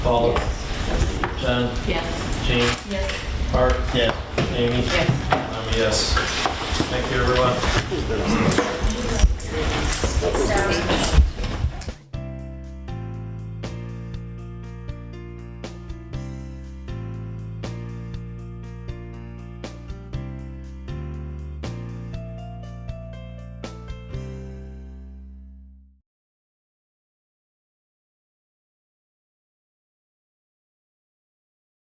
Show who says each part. Speaker 1: Paula, John,
Speaker 2: Yes.
Speaker 1: Jane,
Speaker 2: Yes.
Speaker 1: Art. Yes. Amy.
Speaker 2: Yes.
Speaker 1: I'm a yes. Thank you, everyone.